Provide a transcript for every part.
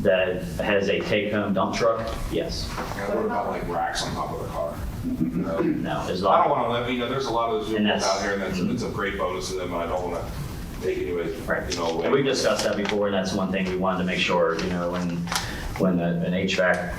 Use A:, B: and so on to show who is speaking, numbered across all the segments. A: that has a take-home dump truck, yes.
B: Yeah, what about like racks on top of the car? No.
A: No, as
B: I don't
A: long,
B: want to live, you know, there's a lot of those
A: And
B: vehicles
A: that's- Mhm.
B: out here and that's, it's a great bonus to them, and I don't want to take any away,
A: right.
B: you know, away.
A: And we've discussed that before, and that's one thing we wanted to make sure, you know, when, when a- an HVAC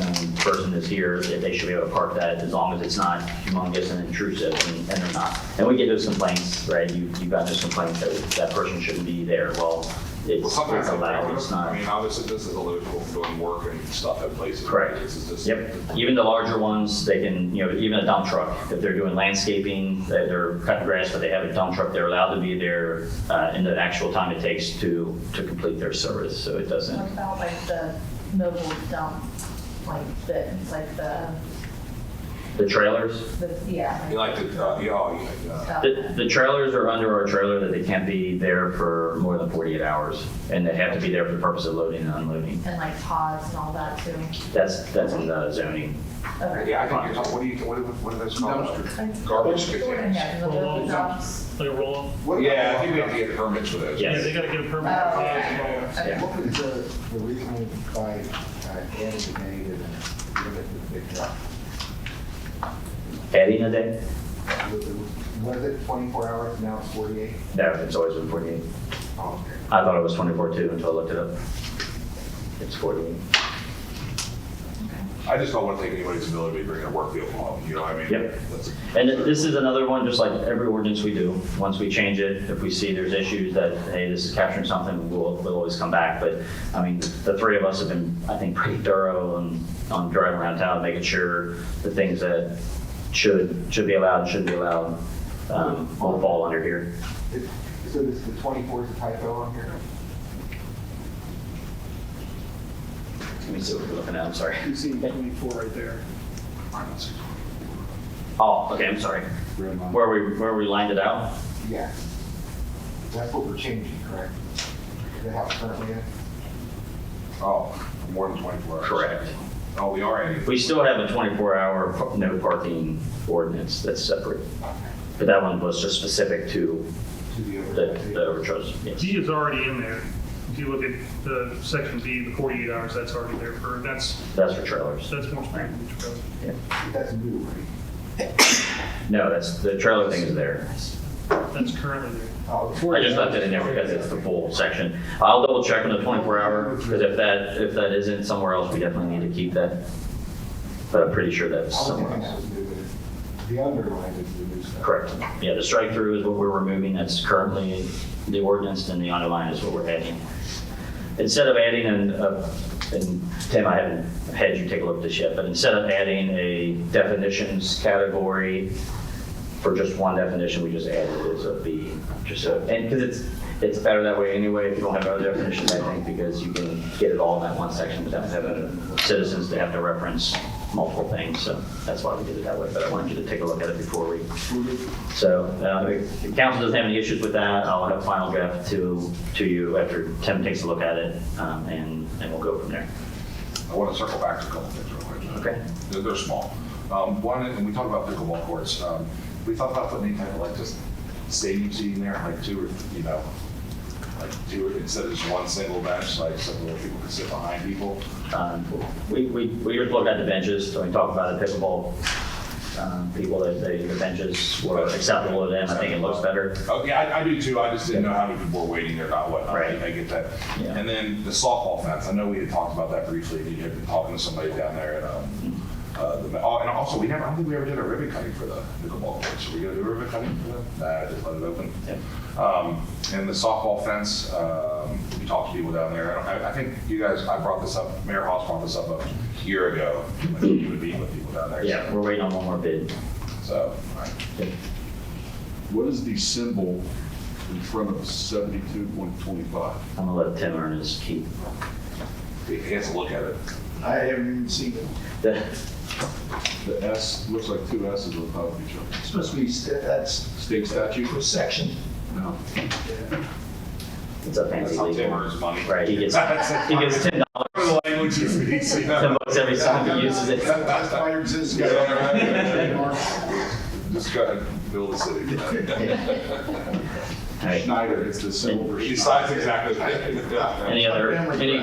A: um, person is here, that they should be able to park that as long as it's not humongous and intrusive, and and they're not. And we get those complaints, right? You, you got those complaints that that person shouldn't be there. Well,
B: Well,
A: it's
B: sometimes
A: it's
B: I
A: allowed, it's
B: don't,
A: not.
B: I mean, obviously, this is a local doing work and stuff at places.
A: Correct.
B: This is just.
A: Yep, even the larger ones, they can, you know, even a dump truck, if they're doing landscaping, that they're cutting grass, but they have a dump truck, they're allowed to be there uh, in the actual time it takes to, to complete their service, so it
C: What
A: doesn't.
C: about like the mobile dump, like the, like the,
A: The trailers,
C: the, yeah.
B: You like the, uh, yeah, oh, you like, uh,
C: stuff.
A: the, the trailers are under our trailer that they can't be there for more than 48 hours, and they have to be there for the purpose of loading and unloading.
C: And like pods and all that too.
A: That's, that's in the zoning.
C: Okay.
B: yeah, I think, you're talking- what do you, what are- what are those called? Uh,
C: Dumpster.
B: Garbage containers.
C: Yeah, the mobile dumps.
D: Like a roll up?
B: Yeah, I think we have to get permits for those.
A: Yes.
D: Yeah, they gotta get a permit.
C: Oh,
D: Yeah,
C: okay.
D: yeah.
C: Okay.
E: What was the, the reasoning by uh, adding the negative and limiting the big drop?
A: Adding a day?
E: Was it- Was it 24 hours, now it's 48?
A: No, it's always been 48.
E: Oh, okay.
A: I thought it was 24 too until I looked it up. It's 48.
B: I just don't want to take anybody's ability to bring a work vehicle home, you know what I mean?
A: Yep.
B: That's-
A: And th- this is another one, just like every ordinance we do, once we change it, if we see there's issues that, hey, this is capturing something, we'll, we'll always come back. But, I mean, the three of us have been, I think, pretty thorough on, on driving around town, making sure the things that should, should be allowed, and shouldn't be allowed, um, all fall under here.
E: It- So this, the 24 is a typo on here?
A: Let me see what we're looking at, I'm sorry.
F: You see 24 right there.
A: Oh, okay, I'm sorry. Where we, where we lined it out?
E: Yeah. That's what we're changing, correct? Is that how it's currently is?
B: Oh, more than 24 hours. Oh, we are adding.
A: We still have a 24-hour no parking ordinance that's separate. But that one was just specific to
E: To the
A: the
E: other.
A: the overcharge, yes.
D: D is already in there. If you look at the section B, the 48 hours, that's already there for, that's,
A: That's for trailers.
D: that's more specific.
E: That's new, right?
A: No, that's, the trailer thing is there.
D: That's currently there.
E: Oh,
A: I just left it in there because it's the full section. I'll double check on the 24-hour, because if that, if that isn't somewhere else, we definitely need to keep that. But I'm pretty sure that's
E: I was
A: somewhere
E: thinking
A: else.
E: that was new, but it- the underline is the new stuff.
A: Correct. Yeah, the strike through is what we're removing, that's currently in the ordinance, and the underline is what we're adding. Instead of adding, an- uh, and Tim, I haven't had you take a look at this yet, but instead of adding a definitions category for just one definition, we just added it as a B, just so, and because it's, it's better that way anyway, if you don't have other definitions, I think, because you can get it all in that one section without having citizens to have to reference multiple things, so that's why we did it that way, but I wanted you to take a look at it before we so uh, if the council doesn't have any issues with that, I'll have a final draft to, to you after Tim takes a look at it, um, and, and we'll go from there.
B: I want to circle back to a couple things real quick.
A: Okay.
B: They're, they're small. Um, one, and we talked about pickleball courts. Um, we thought about putting any type of like just stadium seating there, like two or, you know, like two, or- instead of just one single bench, like so where people can sit behind people.
A: Um, We, we, we just looked at the benches, so we talked about the pickleball, um, people, that they, the benches were acceptable to them, I think it looks better.
B: Okay, I, I do too. I just didn't know how many people were waiting or not, whatnot.
A: Right.
B: I get that.
A: Yeah.
B: And then the softball fence, I know we had talked about that briefly, and you had been talking to somebody down there at, um, uh, the, oh, and also, we never, I don't think we ever did a ribbon cutting for the pickleball courts. Are we gonna do a ribbon cutting for them? Nah, I just let it open. Um, and the softball fence, um, we talked to people down there. I don't, I, I think you guys, I brought this up, Mayor Hoss brought this up a year ago, when you would be with people down there.
A: Yeah, we're waiting on one more bid.
B: So, all right.
G: What is the symbol in front of seventy-two point twenty-five?
A: I'm gonna let Tim earn his keep.
B: he has to look at it.
F: I haven't even seen it.
A: The-
G: The S, looks like two S's on top of each other.
F: It's supposed to be, st- that's
G: State statute?
F: for section.
G: No.
A: It's a fancy
B: That's how Tim
A: legal.
B: earns money.
A: Right, he gets,
B: That's
A: he gets ten
B: one of the languages that he sees.
A: bucks every time he uses it.
F: That's why yours is-
B: Just go ahead and build a city.
A: All right.
G: Schneider, it's the symbol for
B: He
G: Schneider.
B: decides exactly.
A: Any other, any